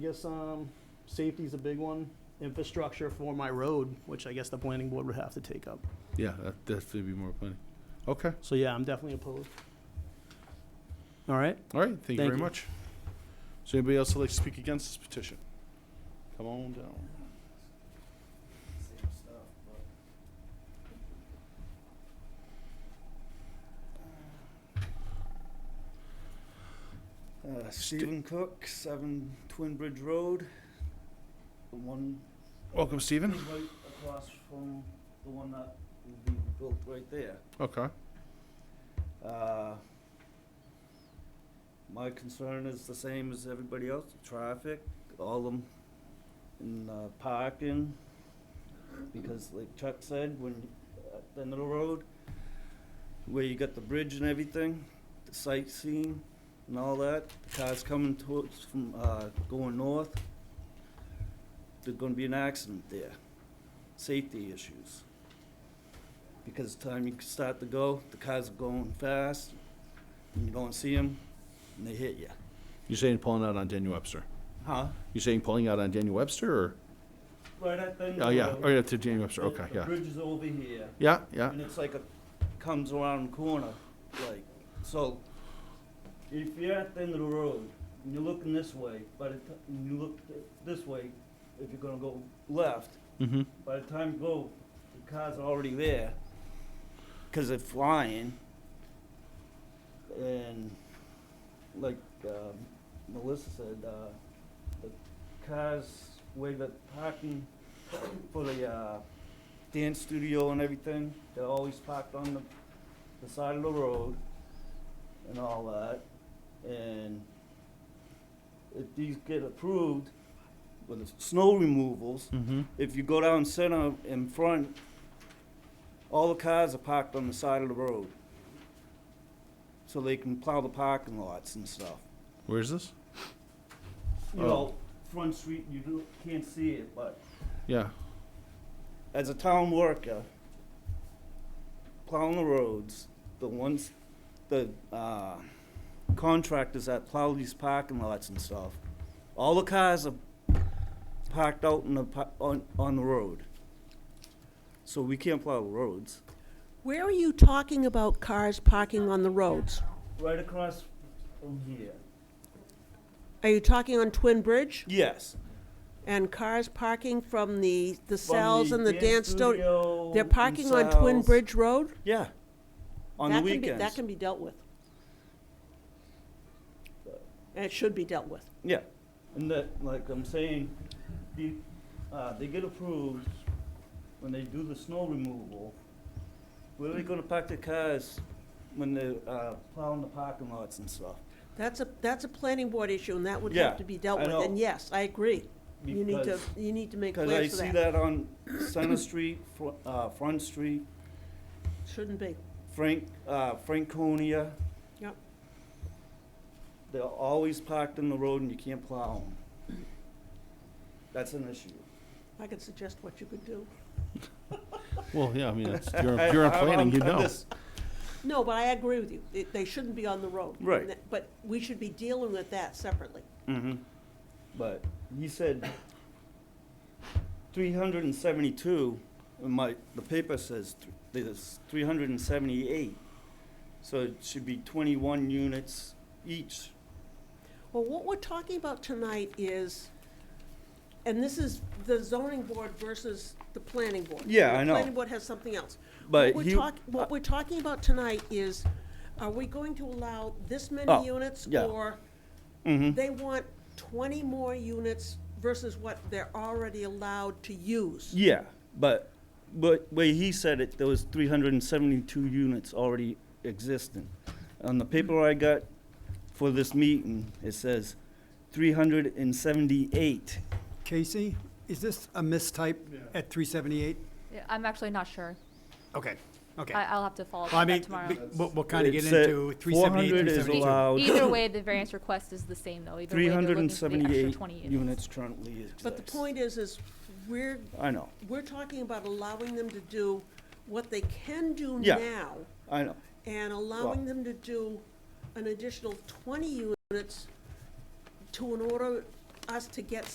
guess um, safety's a big one. Infrastructure for my road, which I guess the planning board would have to take up. Yeah, that, that would be more plenty. Okay, So yeah, I'm definitely opposed. All right. all right, thank you Thank very you. much. Is there anybody else that would like to speak against this petition? Come on down. Uh, Stephen Cook, Seven Twin Bridge Road, the one Welcome, Stephen. right across from the one that will be built right there. Okay, Uh, my concern is the same as everybody else, traffic, all them in uh, parking. Because like Chuck said, when, at the end of the road, where you got the bridge and everything, the sightseeing and all that, cars coming towards from, uh, going north, there's gonna be an accident there. Safety issues because the time you start to go, the cars are going fast, and you don't see them, and they hit you. you're saying pulling out on Daniel Webster? Huh? You're saying pulling out on Daniel Webster, or? Right at the end. Oh, yeah, of the- oh, yeah, to Daniel Webster, okay, uh, the yeah. Bridge is over here, Yeah, yeah, and it's like a, comes around the corner, like, so, if you're at the end of the road, and you're looking this way, by the ti- and you look th- this way, if you're gonna go left, mm-hmm, by the time you go, the car's are already there, because they're flying. And like um, Melissa said, uh, the cars where the parking for the uh, dance studio and everything, they're always parked on the, the side of the road and all that. And if these get approved, with the snow removals, mm-hmm. if you go down center in front, all the cars are parked on the side of the road. So they can plow the parking lots and stuff. Where is this? You Oh. know, Front Street, you do, can't see it, but Yeah, as a town worker, plowing the roads, the ones, the, uh, contractors that plow these parking lots and stuff, all the cars are parked out in the, pa- on, on the road. So we can't plow the roads. Where are you talking about cars parking on the roads? Right across from here. Are you talking on Twin Bridge? Yes. And cars parking from the, the from cells and the dance studio? studio They're and parking on Twin cells. Bridge Road? Yeah. On the That can be- weekends. That can be dealt with. And it should be dealt with. Yeah. And that, like I'm saying, the, uh, they get approved when they do the snow removal. Where are they gonna park the cars when they're, uh, plowing the parking lots and stuff? That's a, that's a planning board issue, and that would Yeah, have to be dealt I with. know. And yes, I agree. You need to, Because- you need to make Cause I plans for see that. that on Center Street, fr- uh, Front Street, Shouldn't be. Frank, uh, Franconia. Yep. They're always parked in the road and you can't plow them. That's an issue. I could suggest what you could do. well, yeah, I mean, it's, you're, you're on I'm- planning, you I'm know. just- No, but I agree with you. They- They shouldn't be on the road. Right. But we should be dealing with that separately. Mhm. But he said three hundred and seventy-two, and my, the paper says th- there's three hundred and seventy-eight. So it should be twenty-one units each. Well, what we're talking about tonight is, and this is the zoning board versus the planning board. Yeah, I know. The planning board has something else. But What he- we're talk, what we're talking about tonight is, are we going to allow this Oh, many units? yeah. Or Mm-hmm. Mhm. they want twenty more units versus what they're already allowed to use? Yeah, but, but way he said it, there was three hundred and seventy-two units already existing. On the paper I got for this meeting, it says three hundred and seventy-eight. Casey, is this a mistype at 378? Yeah, I'm actually not sure. Okay, okay. I, I'll have to follow up Well, I with mean, that Uh, tomorrow. we- we'll, we'll kind of It get said into 378, 400 is 372. allowed. Either way, the variance request is the same though. Either way, Three they're hundred looking and for the extra seventy-eight twenty units. units currently exist. But the point is, is we're, I know, we're talking about allowing them to do what they can do Yeah. now. I know. and allowing them to do an additional twenty units to an order us to get